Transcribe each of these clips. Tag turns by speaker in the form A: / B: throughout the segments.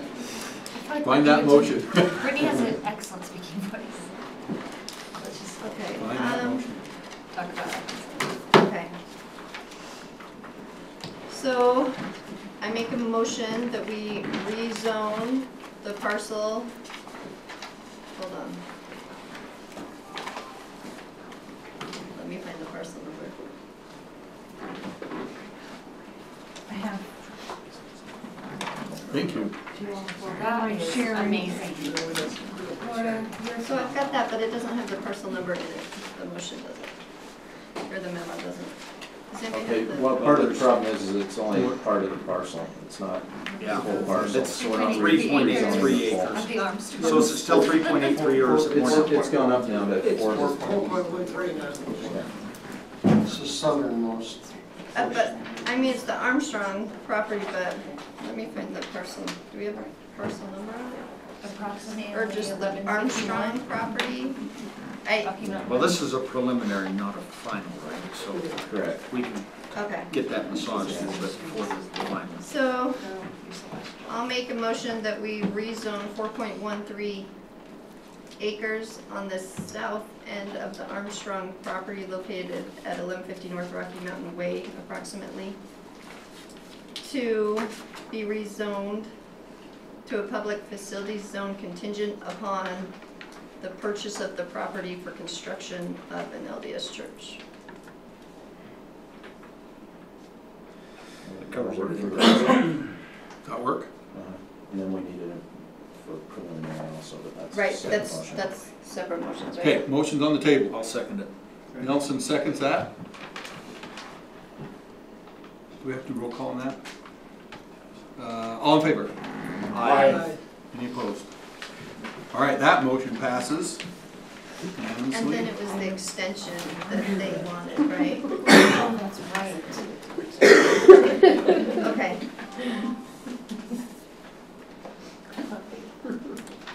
A: Find that motion.
B: Brittany has an excellent speaking voice. Let's just
C: Okay,
A: Find that
C: um,
A: motion.
B: talk about it.
C: okay. So I make a motion that we rezone the parcel. Hold on. Let me find the parcel number.
D: I have.
A: Thank you.
D: Do you want to borrow
B: That
D: my
B: is
D: sharing?
B: amazing.
D: Laura, you're
C: So
D: so-
C: I've got that, but it doesn't have the parcel number in it. The motion doesn't. Or the memo doesn't. Does anybody
A: Okay,
C: have the?
E: Well, part of the problem is, is it's only part of the parcel, it's not the
F: Yeah.
E: whole parcel.
F: It's
B: We're not
F: three point eight three
E: rezoning the full.
F: acres.
B: Of the arms to
F: So it's still three point eight three or is it more?
E: It's, it's gone up now to
G: It's
E: four.
G: four point one three now.
E: Yeah.
G: It's the southernmost.
C: Uh, but, I mean, it's the Armstrong property, but let me find the parcel. Do we have a parcel number on it?
B: approximately
C: Or just the Armstrong property? I,
F: Well, this is a preliminary, not a final, right? So
E: Correct.
F: we can
C: okay.
F: get that massaged a little bit before the final.
C: So
B: Oh,
C: I'll make a motion that we rezone four point one three acres on the south end of the Armstrong property located at eleven fifty North Rocky Mountain Way approximately to be rezoned to a public facilities zone contingent upon the purchase of the property for construction of an LDS church.
F: It covers everything.
E: Uh-huh.
A: That work?
E: Uh, And then we need it for preliminary also, but that's. a
C: Right,
E: separate
C: that's,
E: motion.
C: that's separate motions, right?
A: Okay, motion's on the table.
F: I'll second it.
A: Nelson seconds that. Do we have to roll call on that? Uh, All in favor?
G: Aye.
A: Any opposed? All right, that motion passes
C: And then
A: unanimously.
C: it was the extension that they wanted, right?
D: Oh, that's right.
C: Okay.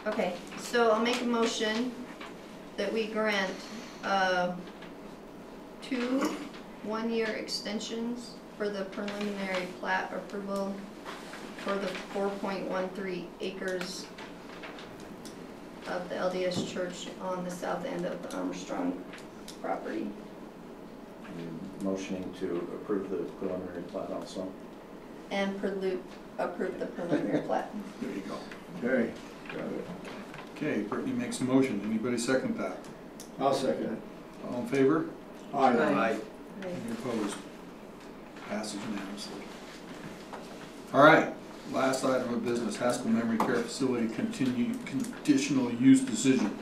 C: Okay, so I'll make a motion that we grant uh, two one-year extensions for the preliminary plat approval for the 4.13 acres of the LDS church on the south end of the Armstrong property.
E: You're Motioning to approve the preliminary plat also.
C: And prelude, approve the preliminary plat.
A: There you go.
H: Okay, got it.
A: Okay, Brittany makes a motion. Anybody second that?
H: I'll second it.
A: All in favor?
H: Aye.
F: Aye.
A: Any opposed? Passes unanimously. All right, last item of business, Haskell Memory Care Facility continue, conditional use decision.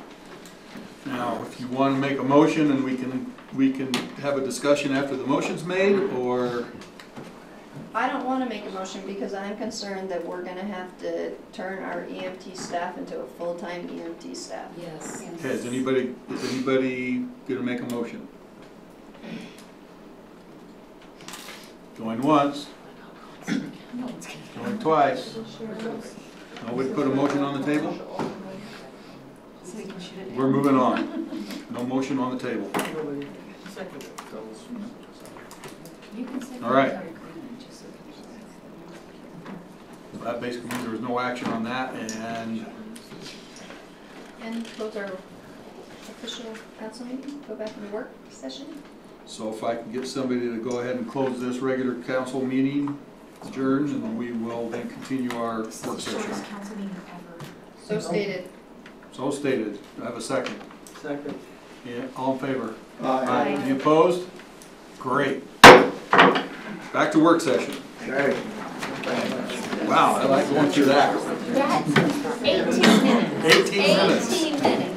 A: Now, if you want to make a motion and we can, we can have a discussion after the motion's made, or,
C: I don't want to make a motion because I'm concerned that we're going to have to turn our EMT staff into a full-time EMT staff.
D: Yes.
A: okay, is anybody, is anybody gonna make a motion? Going once,
B: No one's gonna.
A: going twice. Nobody put a motion on the table?
B: So we can shoot it down.
A: We're moving on. No motion on the table.
B: You can say.
A: All right.
B: our agreement, just so we can-
A: That basically means there was no action on that, and
C: And those are official council meeting, go back into work session.
A: so if I can get somebody to go ahead and close this regular council meeting, adjourn, and we will then continue our work
B: This is the
A: session.
B: shortest council meeting ever.
C: So stated.
A: So stated, Do I have a second.
G: Second.
A: Yeah, all in favor?
H: Aye.
A: Any opposed? Great. Back to work session.
H: Okay.
A: Wow, I like going through that.
B: That's eighteen minutes.
A: Eighteen minutes.
B: Eighteen minutes.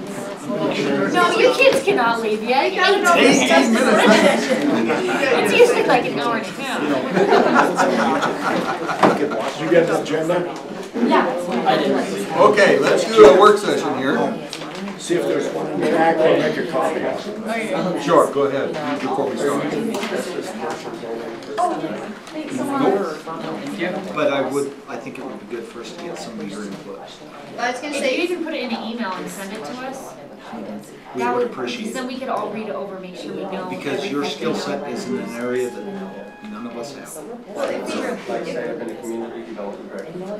B: No, you kids cannot leave yet. You gotta go discuss
A: Eighteen
B: this
A: minutes.
B: work session. It's usually like an hour and a half.
H: You get the agenda?
B: Yeah. it's like-
A: Okay, let's do a work session here.
H: See if there's one in there. I can make a copy.
A: Sure, go ahead, before we start.
F: But I would, I think it would be good for us to get some of your input.
C: Well, I was going to
B: If you
C: say,
B: even put it in an email and send it to us,
F: We
B: that
F: would
B: would,
F: appreciate
B: because then
F: it.
B: we could all read it over, make sure we know.
F: Because your
B: everything.
F: skill set is in an area that none of us have.
C: well, if we were-
G: Like I say, I've been a community development director